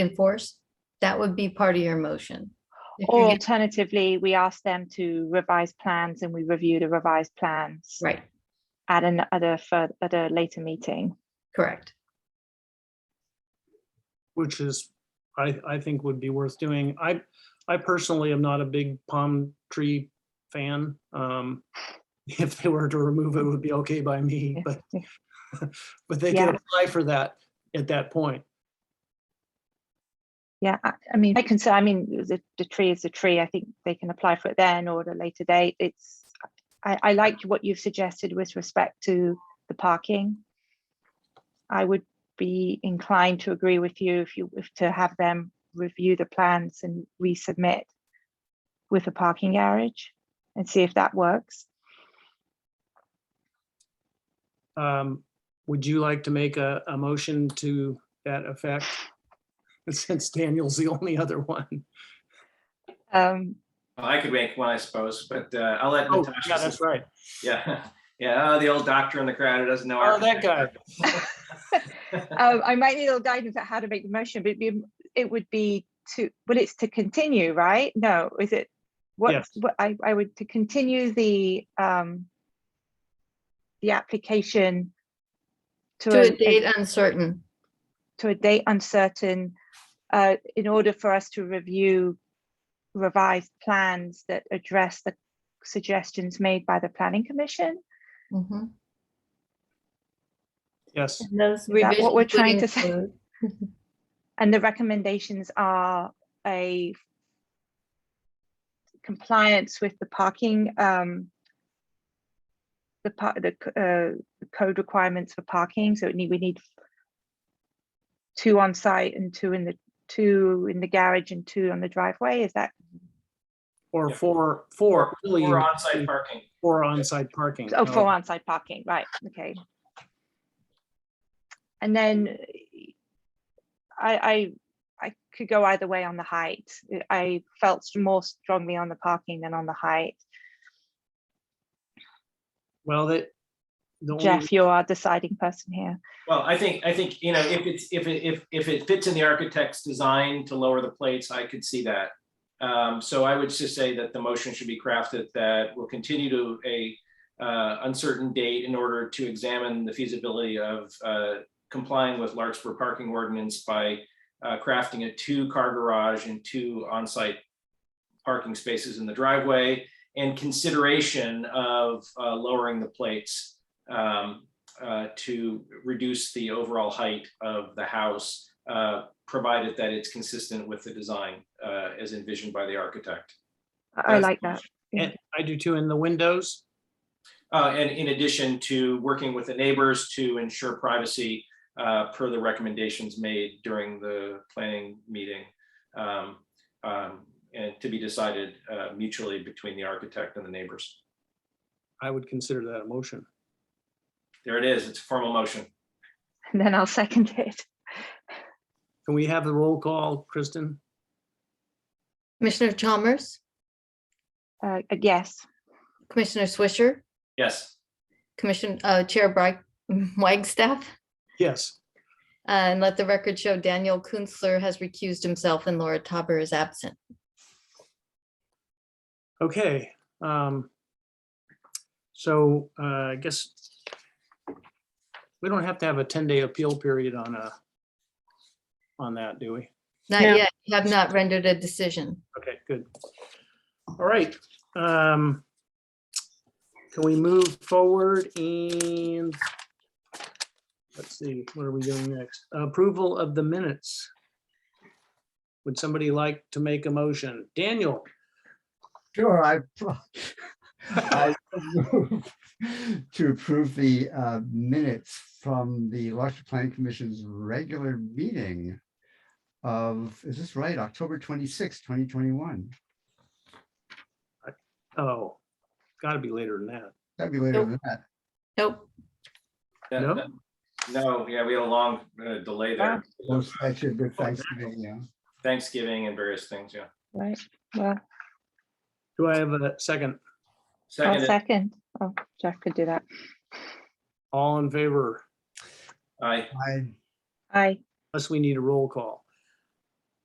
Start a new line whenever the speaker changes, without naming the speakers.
enforce, that would be part of your motion. If you're
Or
gonna-
alternatively, we ask them to revise plans and we review the revised plans
Right,
at an, at a, fur- at a later meeting.
correct.
which is, I, I think would be worth doing. I, I personally am not a big palm tree fan. Um, If they were to remove it, it would be okay by me, but, but they
Yeah.
can apply for that at that point.
Yeah, I I mean, I can say, I mean, the, the tree is a tree. I think they can apply for it then or at a later date. It's, I, I liked what you've suggested with respect to the parking. I would be inclined to agree with you if you, if to have them review the plans and resubmit with a parking garage and see if that works.
Um, Would you like to make a, a motion to that effect? Since Daniel's the only other one.
Um,
Well, I could make one, I suppose, but uh, I'll let
Oh,
Natasha.
yeah, that's right.
Yeah, yeah, oh, the old doctor in the crowd who doesn't know.
Oh, that guy.
architecture.
um, I might need a little guidance on how to make the motion, but it'd be, it would be to, well, it's to continue, right? No, is it? What,
Yes.
what, I, I would, to continue the, um, the application to
To a
a,
date
a-
uncertain,
to a date uncertain, uh, in order for us to review revised plans that address the suggestions made by the planning commission.
Mhm.
Yes,
And those
that what
revisions
we're
would
trying to say?
include-
And the recommendations are a compliance with the parking, um, the part, the, c- uh, the code requirements for parking, so it need, we need two on site and two in the, two in the garage and two on the driveway, is that,
or
Yeah.
for,
Or
for, really,
or onsite parking.
for onsite parking.
oh,
No.
four on site parking, right, okay. And then I, I, I could go either way on the height, I felt more strongly on the parking than on the height.
Well, that. the only
Jeff, you are deciding person here.
Well, I think, I think, you know, if it's, if it, if, if it fits in the architect's design to lower the plates, I could see that. Um, so I would just say that the motion should be crafted that will continue to a uh, uncertain date in order to examine the feasibility of uh, complying with Larkspur parking ordinance by uh, crafting a two-car garage and two on-site parking spaces in the driveway and consideration of uh, lowering the plates um, uh, to reduce the overall height of the house, uh, provided that it's consistent with the design uh, as envisioned by the architect.
I I
That's
like that. Yeah.
And I do too, in the windows.
Uh, And in addition to working with the neighbors to ensure privacy uh, per the recommendations made during the planning meeting. um, um, And to be decided uh, mutually between the architect and the neighbors.
I would consider that a motion.
There it is. It's a formal motion.
And then I'll second it.
Can we have the roll call, Kristen?
Commissioner Chalmers,
Uh, uh, yes,
Commissioner Swisher,
Yes.
Commission, uh, Chair Bright, Wagstaff. uh,
Yes.
And let the record show Daniel Kunstler has recused himself and Laura Tauber is absent.
Okay. um, So uh, I guess we don't have to have a 10-day appeal period on a, on that, do we?
Not
No.
yet, you have not rendered a decision.
Okay, good. All right. um, Can we move forward and let's see, what are we doing next? Approval of the minutes. Would somebody like to make a motion? Daniel?
Sure, I, I move to approve the uh, minutes from the Larkspur Planning Commission's regular meeting of, is this right, October twenty sixth, 2021?
Oh, gotta be later than that.
That'd be later
Nope.
than that.
Nope,
That-
No?
that- No, yeah, we had a long uh, delay there.
Well, that should be
that-
Thanksgiving, yeah.
Thanksgiving and various things, yeah.
right, well,
Do I have a second?
I'll
Second,
second. Oh, Jeff could do that.
All in favor,
I,
I,
I,
unless we need a roll call.